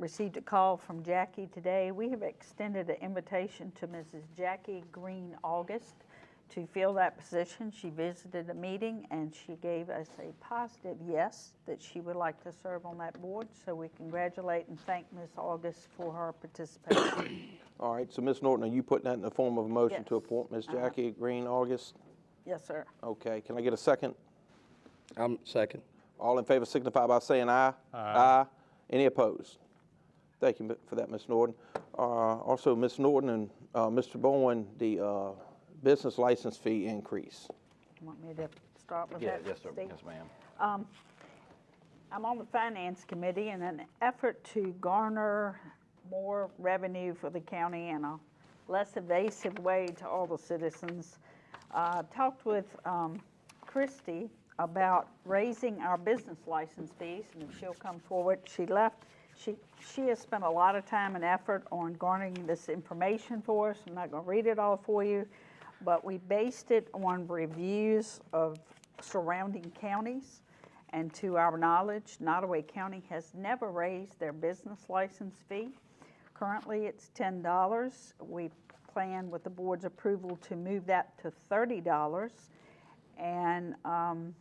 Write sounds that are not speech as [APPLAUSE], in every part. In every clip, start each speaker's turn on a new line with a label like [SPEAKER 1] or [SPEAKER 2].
[SPEAKER 1] received a call from Jackie today. We have extended an invitation to Mrs. Jackie Green August to fill that position. She visited the meeting and she gave us a positive yes that she would like to serve on that board. So we congratulate and thank Ms. August for her participation. [COUGHS]
[SPEAKER 2] All right, so Ms. Norton, are you putting that in the form of a motion to
[SPEAKER 1] Yes. Uh-huh.
[SPEAKER 2] appoint Ms. Jackie Green August?
[SPEAKER 1] Yes, sir.
[SPEAKER 2] Okay, can I get a second?
[SPEAKER 3] I'm second.
[SPEAKER 2] All in favor signify by saying aye. Aye. Any opposed? Thank you mi- for that, Ms. Norton. Uh, Also, Ms. Norton and uh, Mr. Bowen, the uh, business license fee increase.
[SPEAKER 1] Want me to start with
[SPEAKER 3] Yeah,
[SPEAKER 1] that?
[SPEAKER 3] yes, sir.
[SPEAKER 1] Steve?
[SPEAKER 3] Yes, ma'am.
[SPEAKER 1] I'm on the Finance Committee in an effort to garner more revenue for the county in a less evasive way to all the citizens. Uh, Talked with um, Christie about raising our business license fees, and if she'll come forward, she left. She, she has spent a lot of time and effort on garnering this information for us. I'm not going to read it all for you, but we based it on reviews of surrounding counties. And to our knowledge, Nottaway County has never raised their business license fee. Currently, it's ten dollars. We plan with the board's approval to move that to thirty dollars. And um,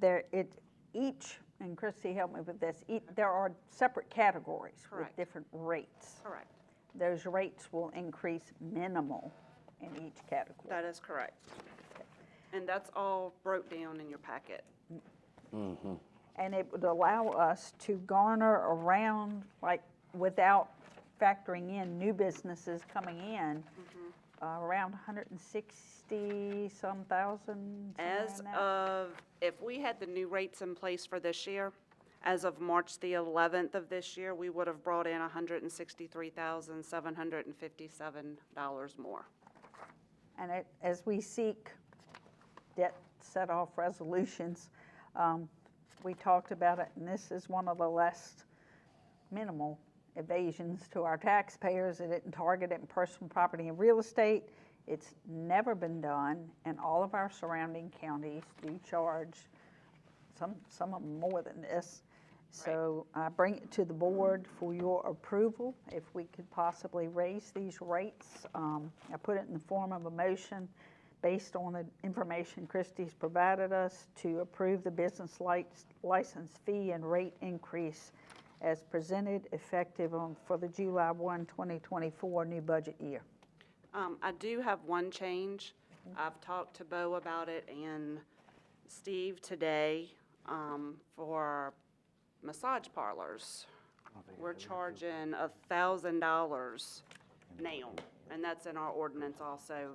[SPEAKER 1] there, it, each, and Christie, help me with this, each- there are separate categories with
[SPEAKER 4] Correct.
[SPEAKER 1] different rates.
[SPEAKER 4] Correct.
[SPEAKER 1] Those rates will increase minimal in each category.
[SPEAKER 4] That is correct. And that's all broke down in your packet.
[SPEAKER 1] and it would allow us to garner around, like, without factoring in new businesses coming in, uh, around 160 some thousand. somewhere
[SPEAKER 4] As
[SPEAKER 1] in that.
[SPEAKER 4] of, if we had the new rates in place for this year, as of March the 11th of this year, we would have brought in $163,757 more.
[SPEAKER 1] And it- as we seek debt set-off resolutions, um, we talked about it, and this is one of the less minimal evasions to our taxpayers. It didn't target it in personal property and real estate. It's never been done, and all of our surrounding counties do charge, some, some of them more than this. So I bring it to the board for your approval, if we could possibly raise these rates. Um, I put it in the form of a motion based on the information Christie's provided us to approve the business lights- license fee and rate increase as presented effective on, for the July 1, 2024 new budget year.
[SPEAKER 4] Um, I do have one change. I've talked to Bo about it and Steve today, um, for massage parlors. We're charging a thousand dollars now, and that's in our ordinance also.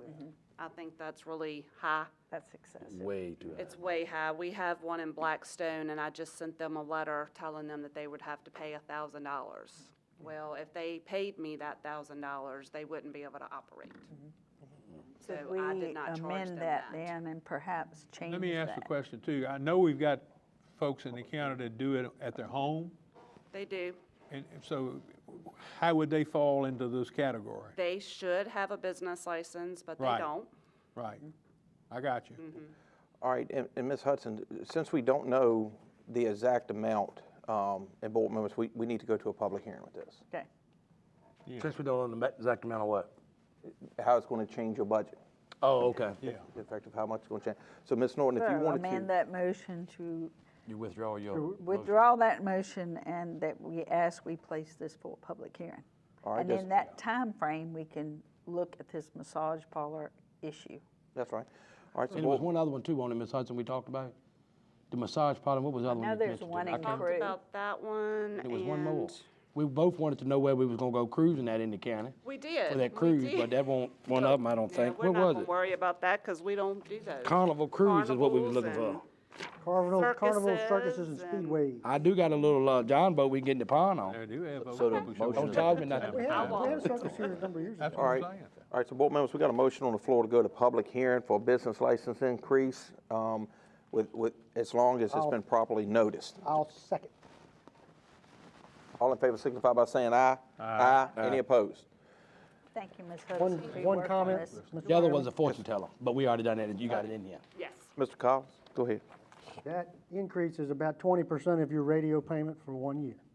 [SPEAKER 4] I think that's really high.
[SPEAKER 1] That's excessive.
[SPEAKER 3] Way too high.
[SPEAKER 4] It's way high. We have one in Blackstone, and I just sent them a letter telling them that they would have to pay a thousand dollars. Well, if they paid me that thousand dollars, they wouldn't be able to operate. So
[SPEAKER 1] Could
[SPEAKER 4] I
[SPEAKER 1] we
[SPEAKER 4] did not charge them
[SPEAKER 1] amend that
[SPEAKER 4] that.
[SPEAKER 1] then and perhaps change
[SPEAKER 5] Let me ask a
[SPEAKER 1] that?
[SPEAKER 5] question too. I know we've got folks in the county that do it at their home,
[SPEAKER 4] They do.
[SPEAKER 5] and so how would they fall into this category?
[SPEAKER 4] They should have a business license, but they
[SPEAKER 5] Right.
[SPEAKER 4] don't.
[SPEAKER 5] Right, I got you.
[SPEAKER 2] All right, and, and Ms. Hudson, since we don't know the exact amount, um, and board members, we, we need to go to a public hearing with this.
[SPEAKER 1] Okay.
[SPEAKER 3] Since we don't know the exact amount of what?
[SPEAKER 2] How it's going to change your budget,
[SPEAKER 3] Oh, okay.
[SPEAKER 5] Yeah,
[SPEAKER 2] the effect of how much it's going to change. So Ms. Norton, if you
[SPEAKER 1] So
[SPEAKER 2] wanted to.
[SPEAKER 1] Amend that motion to
[SPEAKER 3] You withdraw your.
[SPEAKER 1] withdraw that motion and that we ask we place this for a public hearing.
[SPEAKER 2] All right,
[SPEAKER 1] And
[SPEAKER 2] does-
[SPEAKER 1] in that time frame, we can look at this massage parlor issue.
[SPEAKER 2] That's right. All right, so
[SPEAKER 3] And there was
[SPEAKER 2] we'll-
[SPEAKER 3] one other one too, on it, Ms. Hudson, we talked about? The massage parlor, what was the other one?
[SPEAKER 1] know
[SPEAKER 3] you
[SPEAKER 1] there's
[SPEAKER 3] mentioned?
[SPEAKER 1] one
[SPEAKER 3] I
[SPEAKER 1] in
[SPEAKER 3] can't-
[SPEAKER 1] Crew.
[SPEAKER 4] Talked about that one
[SPEAKER 3] There was one more.
[SPEAKER 4] and
[SPEAKER 3] We both wanted to know where we was gonna go cruising at in the county.
[SPEAKER 4] we did.
[SPEAKER 3] For that
[SPEAKER 4] we
[SPEAKER 3] cruise,
[SPEAKER 4] did.
[SPEAKER 3] but that won't, one of them, I don't
[SPEAKER 4] Yeah,
[SPEAKER 3] think.
[SPEAKER 4] We're
[SPEAKER 3] What
[SPEAKER 4] not
[SPEAKER 3] was
[SPEAKER 4] gonna
[SPEAKER 3] it?
[SPEAKER 4] worry about that because we don't do those.
[SPEAKER 3] Carnival Cruise is what we was
[SPEAKER 4] Carnivals
[SPEAKER 3] looking
[SPEAKER 4] and-
[SPEAKER 3] for.
[SPEAKER 6] Carnival, carnival circuses and
[SPEAKER 4] Circuses and-
[SPEAKER 6] speedways.
[SPEAKER 3] I do got a little, uh, John boat we can get in the pond on.
[SPEAKER 5] they do have. a-
[SPEAKER 2] So the
[SPEAKER 5] Don't
[SPEAKER 2] motion-
[SPEAKER 5] charge me
[SPEAKER 6] We
[SPEAKER 5] nothing.
[SPEAKER 6] had, we had a circus here a number of years ago.
[SPEAKER 5] That's
[SPEAKER 2] All
[SPEAKER 5] what I'm
[SPEAKER 2] right,
[SPEAKER 5] saying.
[SPEAKER 2] all right, so board members, we got a motion on the floor to go to public hearing for a business license increase um, with, with, as long as it's been properly noticed.
[SPEAKER 6] I'll second.
[SPEAKER 2] All in favor signify by saying aye. Aye. Any opposed?
[SPEAKER 1] Thank you, Ms.
[SPEAKER 6] One,
[SPEAKER 1] Hudson. We
[SPEAKER 6] one
[SPEAKER 1] worked on
[SPEAKER 6] comment,
[SPEAKER 1] this.
[SPEAKER 6] Mr.
[SPEAKER 3] The other
[SPEAKER 6] Chairman,
[SPEAKER 3] was a fortune teller, but we already done that, you got it in here.
[SPEAKER 4] Yes.
[SPEAKER 2] Mr. Collins, go ahead.
[SPEAKER 6] That increase is about twenty percent of your radio payment for one year.